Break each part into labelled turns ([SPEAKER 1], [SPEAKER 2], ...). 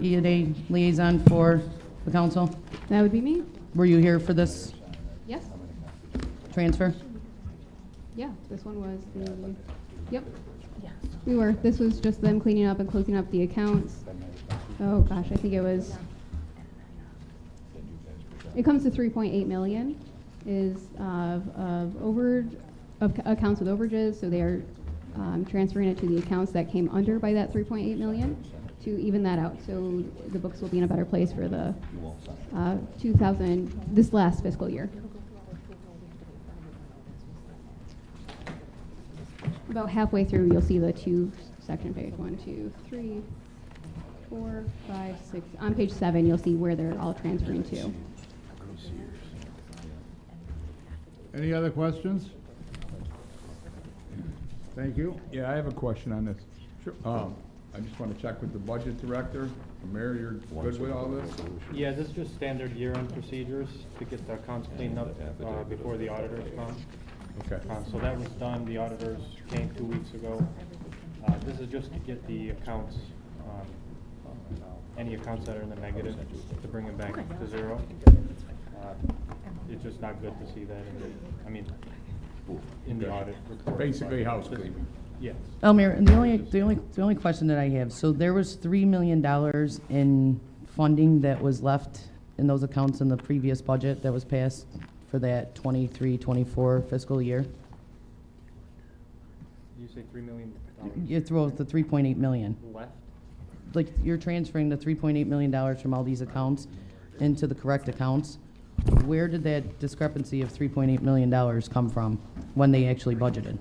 [SPEAKER 1] E and A liaison for the council.
[SPEAKER 2] That would be me.
[SPEAKER 1] Were you here for this
[SPEAKER 2] Yes.
[SPEAKER 1] transfer?
[SPEAKER 2] Yeah, this one was the, yep. We were. This was just them cleaning up and closing up the accounts. Oh, gosh, I think it was, it comes to 3.8 million is of, of over, of ca- accounts with overages. So they are um, transferring it to the accounts that came under by that 3.8 million to even that out. So the books will be in a better place for the uh, 2000, this last fiscal year. About halfway through, you'll see the two section page, one, two, three, four, five, six. On page seven, you'll see where they're all transferring to.
[SPEAKER 3] Any other questions? Thank you. Yeah, I have a question on this. Sure. Um, I just want to check with the budget director. Mayor, you're good with all this?
[SPEAKER 4] Yeah, this is just standard year-end procedures to get the accounts cleaned up uh, before the auditors come.
[SPEAKER 3] Okay.
[SPEAKER 4] Uh, So that was done, the auditors came two weeks ago. Uh, This is just to get the accounts, um, any accounts that are in the negative, to bring them back to zero. Uh, It's just not good to see that in the, I mean, in the audit report.
[SPEAKER 3] Basically house cleaning.
[SPEAKER 4] Yes.
[SPEAKER 1] Elmer, the only, the only, the only question that I have, so there was three million dollars in funding that was left in those accounts in the previous budget that was passed for that 23-24 fiscal year?
[SPEAKER 4] Did you say three million dollars
[SPEAKER 1] You throw out the three point eight million.
[SPEAKER 4] left?
[SPEAKER 1] like you're transferring the three point eight million dollars from all these accounts into the correct accounts. Where did that discrepancy of three point eight million dollars come from when they actually budgeted?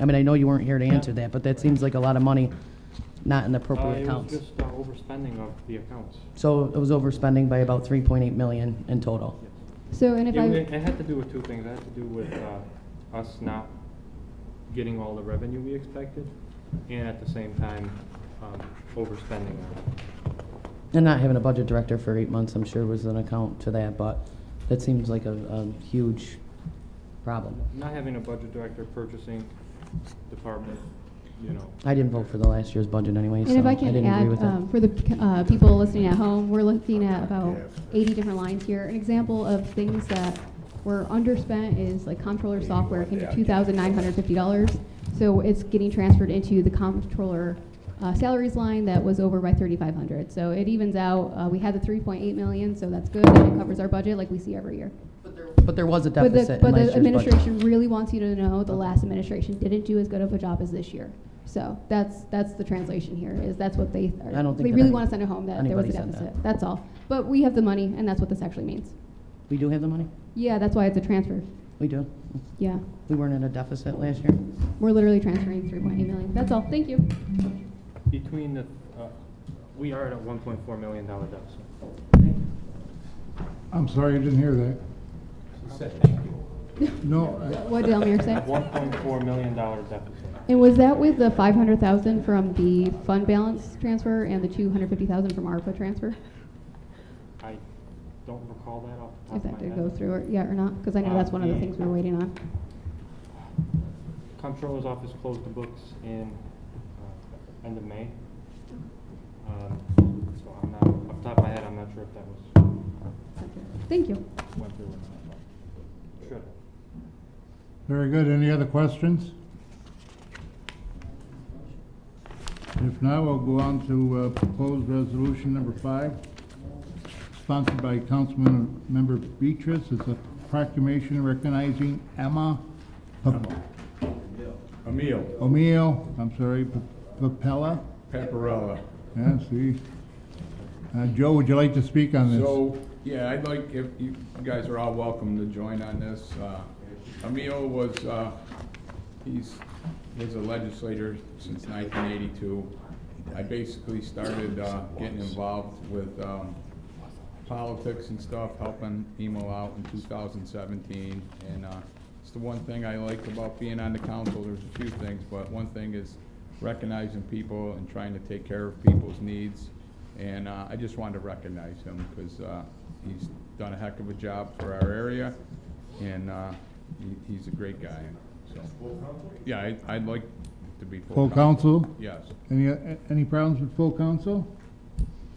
[SPEAKER 1] I mean, I know you weren't here to answer that, but that seems like a lot of money not in the
[SPEAKER 4] Uh,
[SPEAKER 1] appropriate
[SPEAKER 4] It was
[SPEAKER 1] accounts.
[SPEAKER 4] just uh, overspending of the accounts.
[SPEAKER 1] So it was overspending by about three point eight million in total.
[SPEAKER 2] So, and if
[SPEAKER 4] Yeah,
[SPEAKER 2] I.
[SPEAKER 4] we- It had to do with two things. It had to do with uh, us not getting all the revenue we expected, and at the same time, um, overspending on
[SPEAKER 1] And not having a budget director for eight months, I'm sure was an account to that, but that seems like a, a huge problem.
[SPEAKER 4] not having a budget director, purchasing department, you know.
[SPEAKER 1] I didn't vote for the last year's budget anyway, so
[SPEAKER 2] And if
[SPEAKER 1] I
[SPEAKER 2] I can
[SPEAKER 1] didn't agree
[SPEAKER 2] add,
[SPEAKER 1] with it.
[SPEAKER 2] um, for the uh, people listening at home, we're looking at about 80 different lines here. An example of things that were underspent is like comptroller software came to $2,950. So it's getting transferred into the comptroller uh, salaries line that was over by 3,500. So it evens out. Uh, We had the 3.8 million, so that's good, and it covers our budget like we see every year.
[SPEAKER 1] But there was a
[SPEAKER 2] But
[SPEAKER 1] deficit
[SPEAKER 2] the,
[SPEAKER 1] in
[SPEAKER 2] but
[SPEAKER 1] last year's
[SPEAKER 2] the
[SPEAKER 1] budget.
[SPEAKER 2] administration really wants you to know the last administration didn't do as good of a job as this year. So that's, that's the translation here, is that's what they, are-
[SPEAKER 1] I don't think
[SPEAKER 2] they
[SPEAKER 1] that
[SPEAKER 2] really
[SPEAKER 1] any-
[SPEAKER 2] want to send it home, that there was
[SPEAKER 1] anybody
[SPEAKER 2] a
[SPEAKER 1] said that.
[SPEAKER 2] deficit. That's all. But we have the money, and that's what this actually means.
[SPEAKER 1] We do have the money?
[SPEAKER 2] Yeah, that's why it's a transfer.
[SPEAKER 1] We do.
[SPEAKER 2] Yeah.
[SPEAKER 1] We weren't in a deficit last year.
[SPEAKER 2] We're literally transferring 3.8 million. That's all. Thank you.
[SPEAKER 4] Between the, uh, we are at a one point four million dollar deficit.
[SPEAKER 5] I'm sorry, I didn't hear that. No, I-
[SPEAKER 2] What did Elmir say?
[SPEAKER 4] One point four million dollar deficit.
[SPEAKER 2] And was that with the 500,000 from the fund balance transfer and the 250,000 from ARPA transfer?
[SPEAKER 4] I don't recall that off the
[SPEAKER 2] If
[SPEAKER 4] top of
[SPEAKER 2] that
[SPEAKER 4] my
[SPEAKER 2] did
[SPEAKER 4] head.
[SPEAKER 2] go through, or, yeah, or not? Because I know that's one of the things we we're waiting on.
[SPEAKER 4] Comptroller's office closed the books in, uh, end of May. Um, So I'm not, off the top of my head, I'm not sure if that was,
[SPEAKER 2] Thank you.
[SPEAKER 4] went through or not. but Should have.
[SPEAKER 5] very good. Any other questions? If not, we'll go on to uh, proposed resolution number five, sponsored by Councilman Member Beatrice. It's a proclamation recognizing Emma Pap-
[SPEAKER 3] Emile
[SPEAKER 5] O'Meal, I'm sorry, P- Papella.
[SPEAKER 3] Paparella.
[SPEAKER 5] Yeah, see. Uh, Joe, would you like to speak on this?
[SPEAKER 3] So, yeah, I'd like, if you you guys are all welcome to join on this. Uh, Emile was, uh, he's, was a legislator since 1982. I basically started uh, getting involved with um, politics and stuff, helping Emo out in 2017. And uh, it's the one thing I like about being on the council, there's a few things, but one thing is recognizing people and trying to take care of people's needs. And uh, I just wanted to recognize him because he's done a heck of a job for our area and uh, he- he's a great guy, so. Yeah, I- I'd like to be
[SPEAKER 5] Full council?
[SPEAKER 3] Yes.
[SPEAKER 5] Any, any problems with full council?